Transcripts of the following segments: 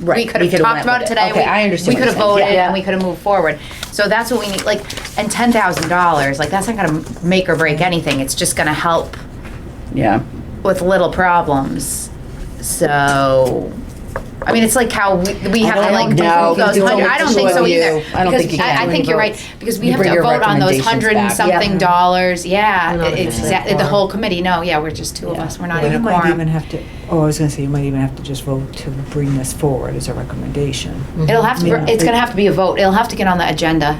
Right, We could we have could've talked went about it with it. today. Okay, we- I understand We what could have you're saying. voted Yeah. and we could have moved forward. So that's what we need, like, and ten thousand dollars, like, that's not gonna make or break anything. It's just gonna help Yeah. with little problems. So, I mean, it's like how we, we I have to don't like know. do those No, hundred. I it's don't think so only either. you. I don't because think you can. I, I think you're right because we You have bring to your vote on those recommendations hundred and back. something Yeah. dollars. Yeah, Not it- officially exactly. The quorum. whole committee. No, yeah, we're just two of us. We're not Well, even you a might quorum. even have to, oh, I was gonna say, you might even have to just vote to bring this forward as a recommendation. It'll have to. Yeah. It's gonna have to be a vote. It'll have to get on the agenda.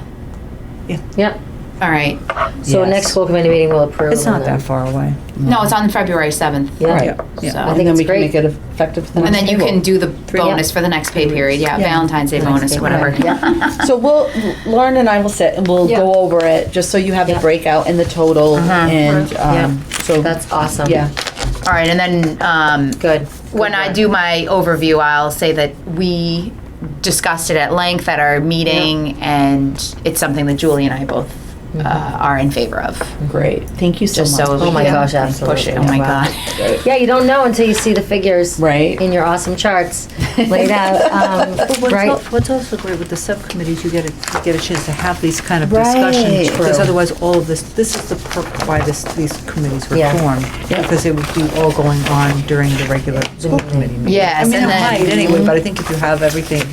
Yep. All right. So Yes. next school committee meeting will approve. It's not and then- that far away. No, it's on February seventh. Yeah. Right. So- Yeah, I and then think it's we can great. make it effective for the And next then you payroll. can do the yeah. bonus for the next pay period. Yeah, Yeah. Valentine's Day The next bonus, pay whatever. period. Yeah. So we'll, Lauren and I will sit and we'll Yeah. go over it, just so you have the Yeah. breakout and the total Uh-huh. and, um, so. That's awesome. Yeah, All right, and then um, Good. when I do my overview, I'll say that we discussed it at length at our meeting, and it's something that Julie and I both uh, are in favor of. great. Thank you so Just so, much. we Mm-hmm. Oh my can gosh, push it. absolutely. Oh my Wow. god, Yeah, you don't know until you see the figures. Right. In your awesome charts laid out, um, right? What's also great with the subcommittees, you get a, you get a chance to have these kind of Right. discussions. Because True. otherwise, all of this, this is the perk why this, these committees were Yeah. formed. Because they would be all going on during the regular school committee meeting. Mm-hmm. Yes, I mean, and it then- Mm-hmm. might anyway, but I think if you have everything,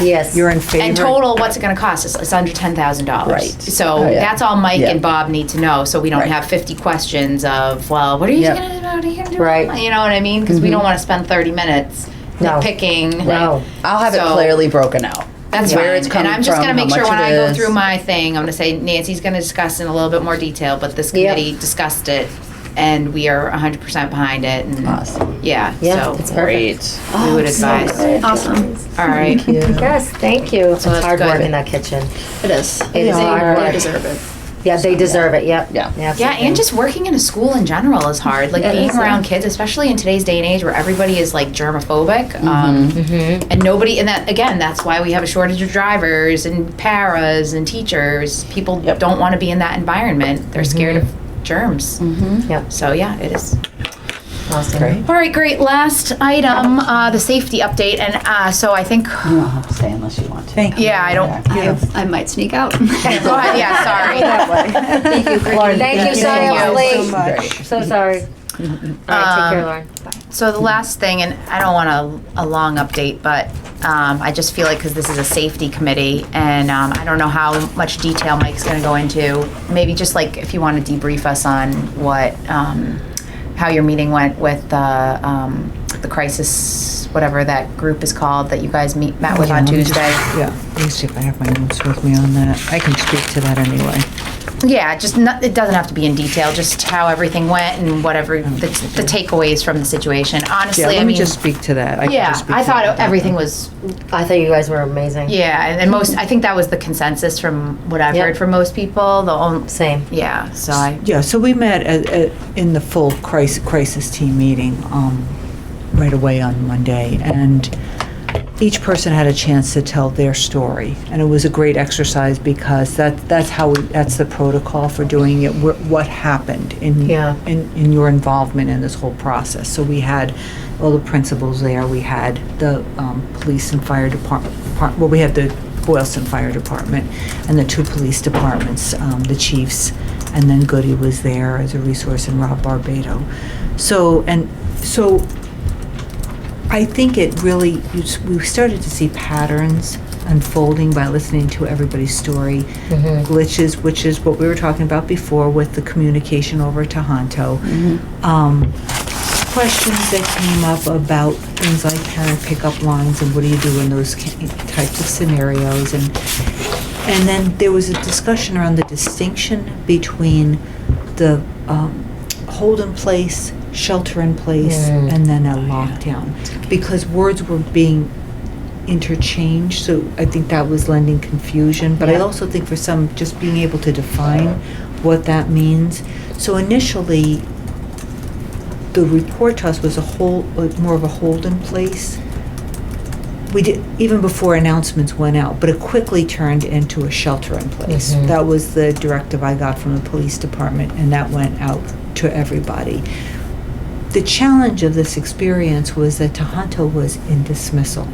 Yes. you're in favor. and total, what's it going to cost us? It's under ten thousand dollars. Right. So Oh, yeah. that's all Mike Yeah. and Bob need to know, so we don't Right. have fifty questions of, well, what are you Yep. going to do? here? Right. You know what I mean? Mm-hmm. Because we don't want to spend thirty minutes No. picking. No. I'll have it So- clearly broken out. That's where fine. it's coming and I'm just from, going to how make sure much when it I go is. through my thing, I'm going to say Nancy's going to discuss in a little bit more detail, but this Yeah. committee discussed it and we are 100% behind it. And Awesome. Yeah. Yeah, so it's perfect. we would advise. Awesome. All right. Yes, thank you. It's that's hard work good. in that kitchen. It is. It is hard They work. deserve it. Yeah, they deserve it, yep. Yeah. Yeah, and just working in a school in general is hard. Like It being is, yeah. around kids, especially in today's day and age where everybody is like germophobic. Um, Mm-hmm. And nobody, and that, again, that's why we have a shortage of drivers and paras and teachers. People Yep. don't want to be in that environment, they're scared of germs. Yep, So, yeah, it is. awesome. Great. Mm-hmm. All right, great. Last item, uh, the safety update. And uh, so I think, You don't have to stay unless you want to. Thank you. yeah, I don't. I, I might sneak out. Go ahead, yeah, sorry. Lauren, Thank you, sorry Thank I you was so late. much. Great. So sorry. All right, take Um, care, Lauren. So the last thing, and I don't want a, a long update, but um, I just feel like, because this is a safety committee, and um, I don't know how much detail Mike's going to go into. Maybe just like if you want to debrief us on what, um, how your meeting went with the, um, the crisis, whatever that group is called, that you guys meet, met with Yeah, on let me just- Tuesday. Yeah, let me see if I have my notes with me on that. I can speak to that anyway. Yeah, just not, it doesn't have to be in detail, just how everything went and whatever the, the takeaways from the situation. Yeah, Honestly, I let me mean, just speak to that. can yeah, just speak I to that. thought everything was, I thought you guys were amazing. yeah, and, and most, I think that was the consensus from what I've Yep. heard from most people. The only, Same. yeah, so I, Yeah, so we met at, at, in the full crisis, crisis team meeting, um, right away on Monday, and each person had a chance to tell their story, and it was a great exercise because that, that's how, we that's the protocol for doing it, wh- what happened in, Yeah. in, in your involvement in this whole process. So we had all the principals there, we had the, um, police and fire department, well, we had the Boylston Fire Department and the two police departments, um, the chiefs, and then Goody was there as a resource and Rob Barbado. So, and, so I think it really, you s- we started to see patterns unfolding by listening to everybody's story. Glitches, which is what we were talking about before with the communication over to Honto. Um, questions that came up about things like parent pickup lines and what do you do in those ca- types of scenarios and and then there was a discussion around the distinction between the um, hold in place shelter in place and then a lockdown because words were being interchange, so I think that was lending confusion. But I also think for some, just being able to define what that means. So initially, the report to us was a whole, like, more of a hold in place. We did, even before announcements went out, but it quickly turned into a shelter in place. That was the directive I got from the police department, and that went out to everybody. The challenge of this experience was that Tohoto was in dismissal.